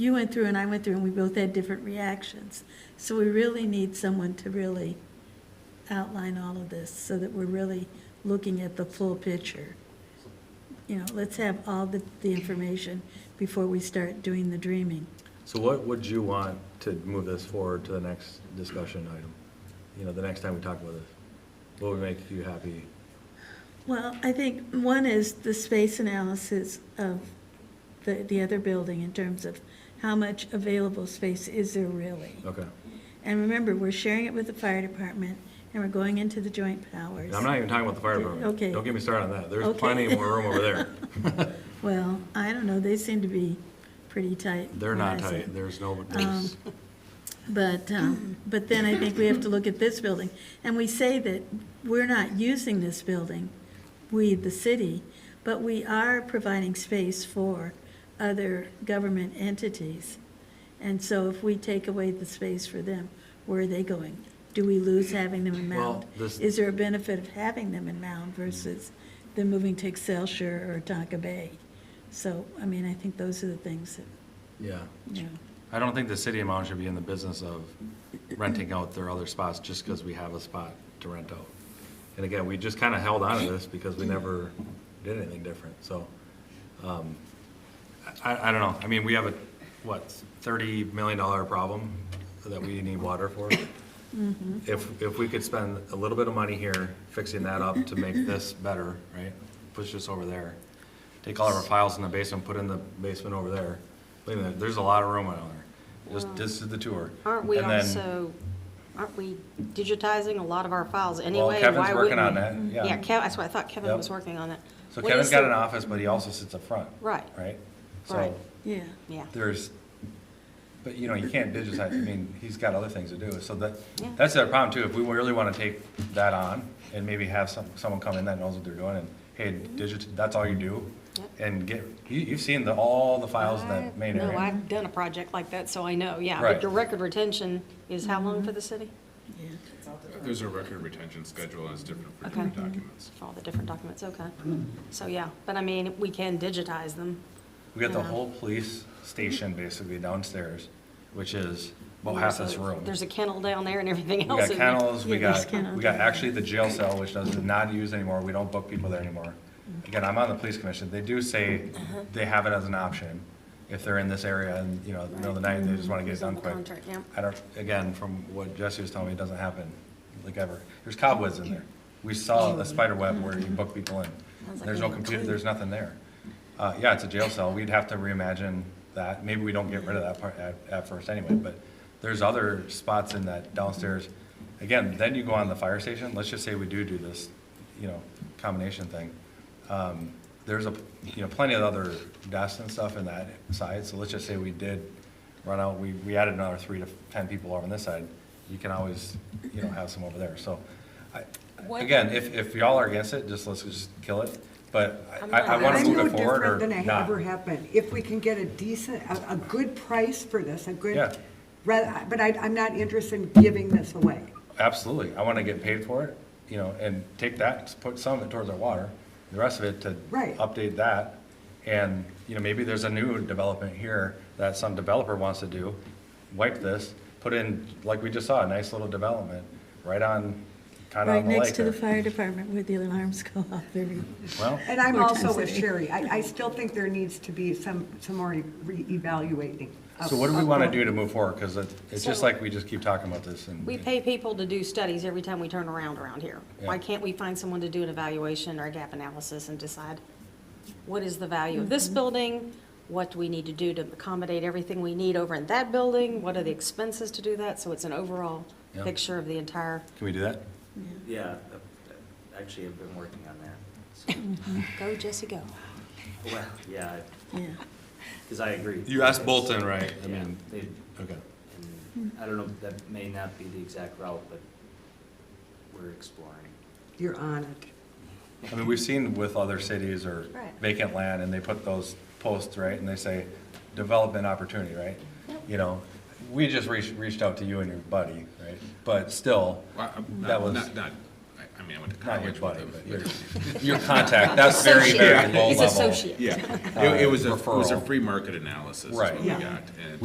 you went through and I went through, and we both had different reactions. So we really need someone to really outline all of this, so that we're really looking at the full picture. You know, let's have all the, the information before we start doing the dreaming. So what would you want to move this forward to the next discussion item? You know, the next time we talk about this? What would make you happy? Well, I think one is the space analysis of the, the other building in terms of how much available space is there really? Okay. And remember, we're sharing it with the fire department, and we're going into the joint powers. And I'm not even talking about the fire department. Okay. Don't get me started on that. There's Okay. plenty more room over there. Well, I don't know, they seem to be pretty tight. They're not when I say- tight. There's Um, no, there's, But, um, but then I think we have to look at this building. And we say that we're not using this building, we, the city, but we are providing space for other government entities. And so if we take away the space for them, where are they going? Do we lose having them in Well, Mound? this- Is there a benefit of having them in Mound versus them moving to Excelsior or Tonka Bay? So, I mean, I think those are the things that, yeah. you know. I don't think the city of Mound should be in the business of renting out their other spots just because we have a spot to rent out. And again, we just kind of held on to this because we never did anything different, so. um, I, I don't know, I mean, we have a, what, thirty million dollar problem that we need water for? Mm-hmm. If, if we could spend a little bit of money here fixing that up to make this better, right? Push this over there. Take all of our files in the basement, put in the basement over there. Look at that, there's a lot of room out there. Just, this is the tour. Aren't we And then- also, aren't we digitizing a lot of our files anyway? Well, Kevin's Why working on wouldn't that, we? Mm-hmm. Yeah, yeah. Kev, that's what I thought Kevin Yep. was working on that. So What Kevin's is got the- an office, but he also sits up front. Right. Right? Right. So Yeah. Yeah, there's, but you know, you can't digitize, I mean, he's got other things to do, so that, Yeah. that's the other problem too, if we really wanna take that on and maybe have some, someone come in that knows what they're doing and, hey, digit, that's all you do? Mm-hmm. Yep. And get, you, you've seen the, all the files in I- that main No, area. I've done a project like that, so I know, yeah. Right. But your record retention is how long for the city? Yeah. There's a record retention schedule and it's different for Okay. different documents. For all the different documents, okay. So, yeah, but I mean, we can digitize them. We got the whole police station basically downstairs, which is about half this So room. There's a kennel down there and everything We else. got in there. kennels, we Yeah, there's got, kennels. we got actually the jail cell, which does not use anymore, we don't book people there anymore. Again, I'm on the police commission, they do say Uh-huh. they have it as an option, if they're in this area and, you know, in the middle of the night, they just wanna get it It's done on the quick. contract, yeah. I don't, again, from what Jesse was telling me, it doesn't happen, like ever, there's cobwebs in there. We saw the spider web where you book people in, Sounds Mm-hmm. like there's no a computer, there's nothing there. Uh, yeah, it's a jail cell, we'd have to reimagine that, maybe we don't get rid of that part at, at first anyway, but there's other spots in that downstairs. Again, then you go on the fire station, let's just say we do do this, you know, combination thing. Um, there's a, you know, plenty of other desks and stuff in that side, so let's just say we did run out, we, we added another three to ten people over on this side, you can always, you know, have some over there, so. I, What- again, if, if y'all are against it, just, let's just kill it, but I- I'm I, not I wanna against move it. it forward or I'm no different than I not. ever have been. If we can get a decent, a, a good price for this, a Yeah. good, rather, but I, I'm not interested in giving this away. Absolutely, I wanna get paid for it, you know, and take that, put some of it towards our water, the rest of it to Right. update that. And, you know, maybe there's a new development here that some developer wants to do, wipe this, put in, like we just saw, a nice little development, right on, kinda Right on the next lake to the there. fire department where the alarms go off every, Well, And I'm also with Fantastic. Sherry. I, I still think there needs to be some, some more reevaluating. of- so what do we of wanna the- do to move forward, cause it, it's just So- like we just keep talking about this and. We pay people to do studies every time we turn around around here. Why Yeah. can't we find someone to do an evaluation or a gap analysis and decide what is the value of this building? What do we need to do to accommodate everything we need over in that building? What are the expenses to do that? So it's an overall Yeah. picture of the entire, Can we do that? Yeah, I- I- actually, I've been working on that. So- go Jesse, go. Well, yeah, yeah. because I agree. You asked Bolton, right? I Yeah, mean, they- okay. and I don't know, that may not be the exact route, but we're exploring. You're on it. I mean, we've seen with other cities or Right. vacant land, and they put those posts, right, and they say, development opportunity, right? You know, we just reached, reached out to you and your buddy, right, but still, Well, I'm that Not, was, not- not, I- I mean, I went to Not your college with buddy, them. but your, your contact, that's very, Associate. very low level. He's associate. Yeah, it it was a, it was a Uh, Referral. free market analysis is Right. what we Yeah. got, and